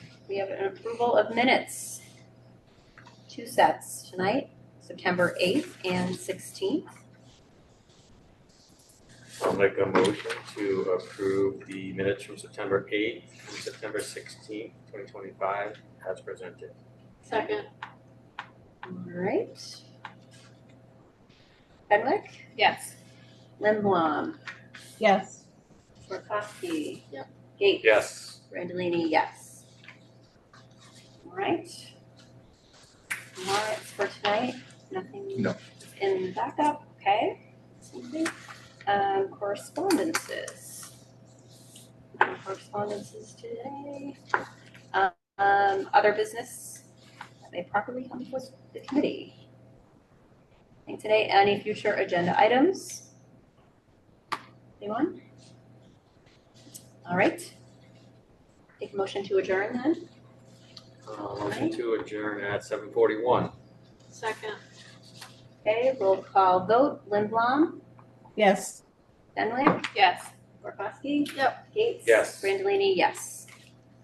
we have an approval of minutes. Two sets tonight, September eighth and sixteenth. I'll make a motion to approve the minutes from September eighth and September sixteenth, twenty twenty-five as presented. Second. Alright. Fenwick, Yes. Limblom, Yes. Swarkowski. Yep. Gates. Yes. Randallini, yes. Alright. Warrants for tonight, nothing No. in the backup, okay? Something. Um, correspondences. No Correspondences today. Um, other business, that may properly come before the committee. And today, any future agenda items? Anyone? Alright. Take a motion to adjourn then? Uh, motion to adjourn at seven forty-one. Second. Okay, roll call vote, Lindblom, Yes. Fenwick, Yes. Gorkowski. Yep. Gates. Yes. Brandolini, yes.